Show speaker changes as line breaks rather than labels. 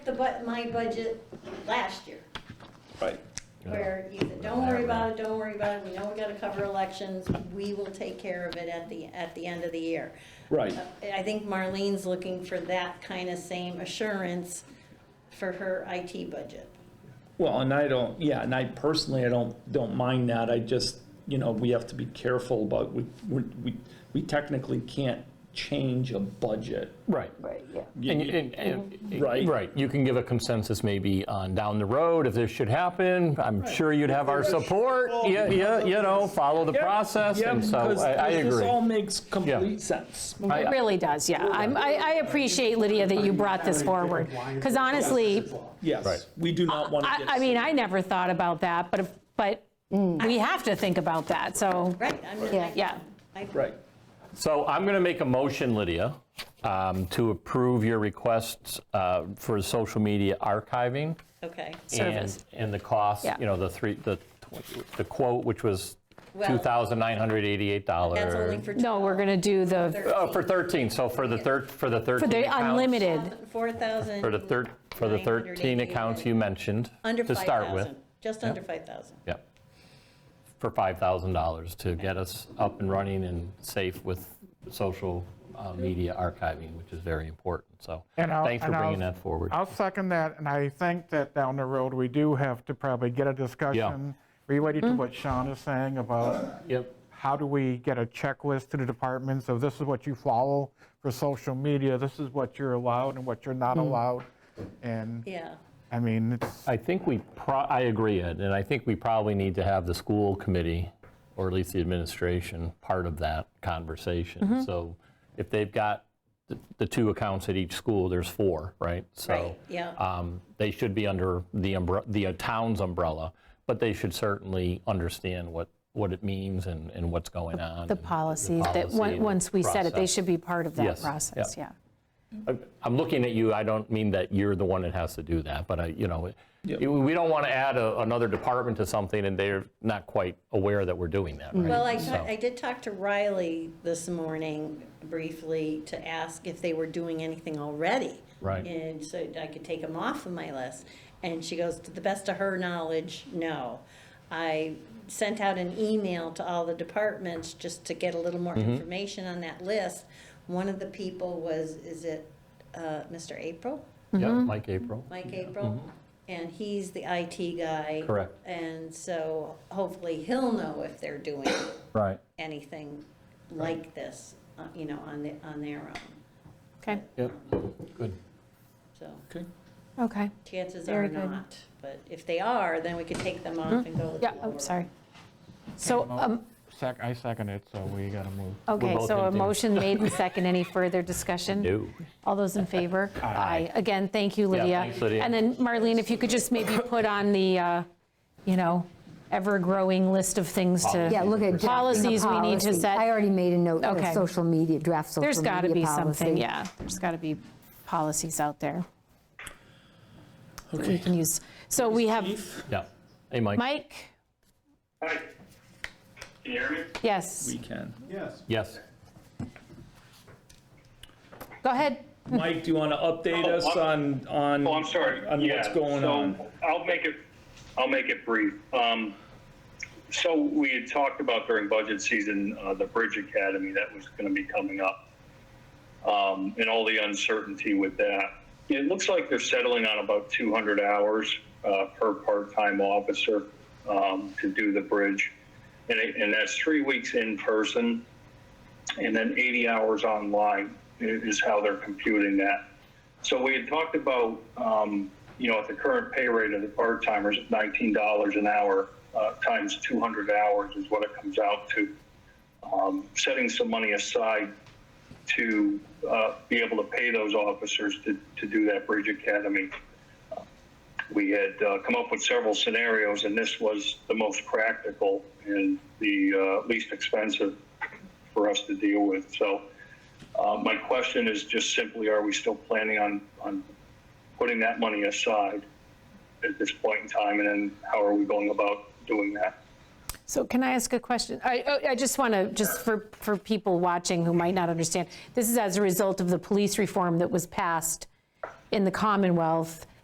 the bu, my budget last year,
Right.
where you said, don't worry about it, don't worry about it, we know we gotta cover elections, we will take care of it at the, at the end of the year.
Right.
Uh, I think Marlene's looking for that kind of same assurance for her IT budget.
Well, and I don't, yeah, and I personally, I don't, don't mind that. I just, you know, we have to be careful about, we, we, we- we technically can't change a budget.
Right.
Right, yeah.
You-
And-
you-
and- and-
Right.
mm-hmm. Right, you can give a consensus maybe on down the road if this should happen. I'm sure you'd have our support. Yeah, yeah, you know, follow the process,
Yeah,
and so
because-
I I
because This
agree.
all makes complete sense.
I-
It really does, yeah. I'm- I I appreciate, Lydia, that you brought this forward. Because honestly,
Yes,
Right.
we do not want to
I
get.
I mean, I never thought about that, but, if- but we have to think about that, so,
Right, I'm just.
Yeah.
yeah.
I-
Right.
So I'm going to make a motion, Lydia, um, to approve your requests uh, for social media archiving.
Okay.
Service.
And and the cost,
Yeah.
you know, the three, the tw- the quote, which was
Well,
$2,988.
That's only for.
No, we're going to do the,
Oh, for 13, so for the third, for the 13
for the
accounts-
unlimited,
Four thousand.
For the third, for the 13 accounts you mentioned
Under
to start with.
5,000, just under 5,000.
Yep. For $5,000 to get us up and running and safe with social uh, media archiving, which is very important. So
And I'll-
thanks for
and I'll-
bringing that forward.
I'll second that, and I think that down the road, we do have to probably get a discussion related
Mm-hmm.
to what Sean is saying about
Yep.
how do we get a checklist to the departments of this is what you follow for social media, this is what you're allowed and what you're not
Mm.
allowed. And,
Yeah.
I mean, it's,
I think we, pro- I agree, Ed, and I think we probably need to have the school committee, or at least the administration, part of that
Mm-hmm.
conversation. So if they've got the- the two accounts at each school, there's four, right? So
Right, yeah.
um, They should be under the umbre- the uh, town's umbrella, but they should certainly understand what, what it means and, and what's going on.
the
and
policies, that,
policy
on-
and
once we set it, they
process.
should be part of that
Yes, yeah.
process, yeah.
I'm looking at you, I don't mean that you're the one that has to do that, but I, you know, it- we don't want to add a- another department to something and they're not quite aware that we're doing that, right?
Well, I,
So-
ta- I did talk to Riley this morning briefly to ask if they were doing anything already.
Right.
And so I could take them off of my list. And she goes, to the best of her knowledge, no. I sent out an email to all the departments just to get a little more
Mm-hmm.
information on that list. One of the people was, is it uh, Mr. April?
Yeah, Mike April.
Mike April, and he's the IT guy.
Mm-hmm. Correct.
And so hopefully he'll know if they're doing
Right.
anything like this, uh, you know, on the, on their own,
Okay,
Yep, good.
so
Okay.
okay.
chances
Very
are
good. Mm-hmm.
not. But if they are, then we could take them off and go with the
Yeah,
lower.
I'm sorry. So, um,
sec- I second it, so we got to move.
okay,
both
so a
empty.
motion made and second, any further discussion?
No.
All those in favor? Aye. Again, thank you, Lydia.
thanks, Lydia.
And then Marlene, if you could just maybe put on the, uh, you know, ever-growing list of things to.
Yeah, look at. drafting the
Policies we need to
policy.
set-
I already made a note of
Okay.
social media, draft social media
There's
policy.
got to be something, yeah, there's got to be policies out there that we can use. So we have,
Yeah. Hey, Mike.
Mike,
Hi. Can you hear me?
yes,
We can.
Yes.
go ahead.
Mike, do you want to update us on, on?
Oh, I'm sorry.
On
Yeah,
what's going
so
on?
I'll make it, I'll make it brief. Um, So we had talked about during budget season, uh, the Bridge Academy that was going to be coming up um, and all the uncertainty with that. It looks like they're settling on about 200 hours uh, per part-time officer um, to do the bridge. And it- and that's three weeks in person and then 80 hours online i- is how they're computing that. So we had talked about, um, you know, at the current pay rate of the part timers, $19 an hour uh, times 200 hours is what it comes out to. Um, setting some money aside to uh, be able to pay those officers to, to do that Bridge Academy. We had uh, come up with several scenarios, and this was the most practical and the uh, least expensive for us to deal with. So uh, my question is just simply, are we still planning on, on putting that money aside at this point in time? And then how are we going about doing that?
So can I ask a question? I, oh, I- I just want to, just for, for people watching who might not understand, this is as a result of the police reform that was passed in the Commonwealth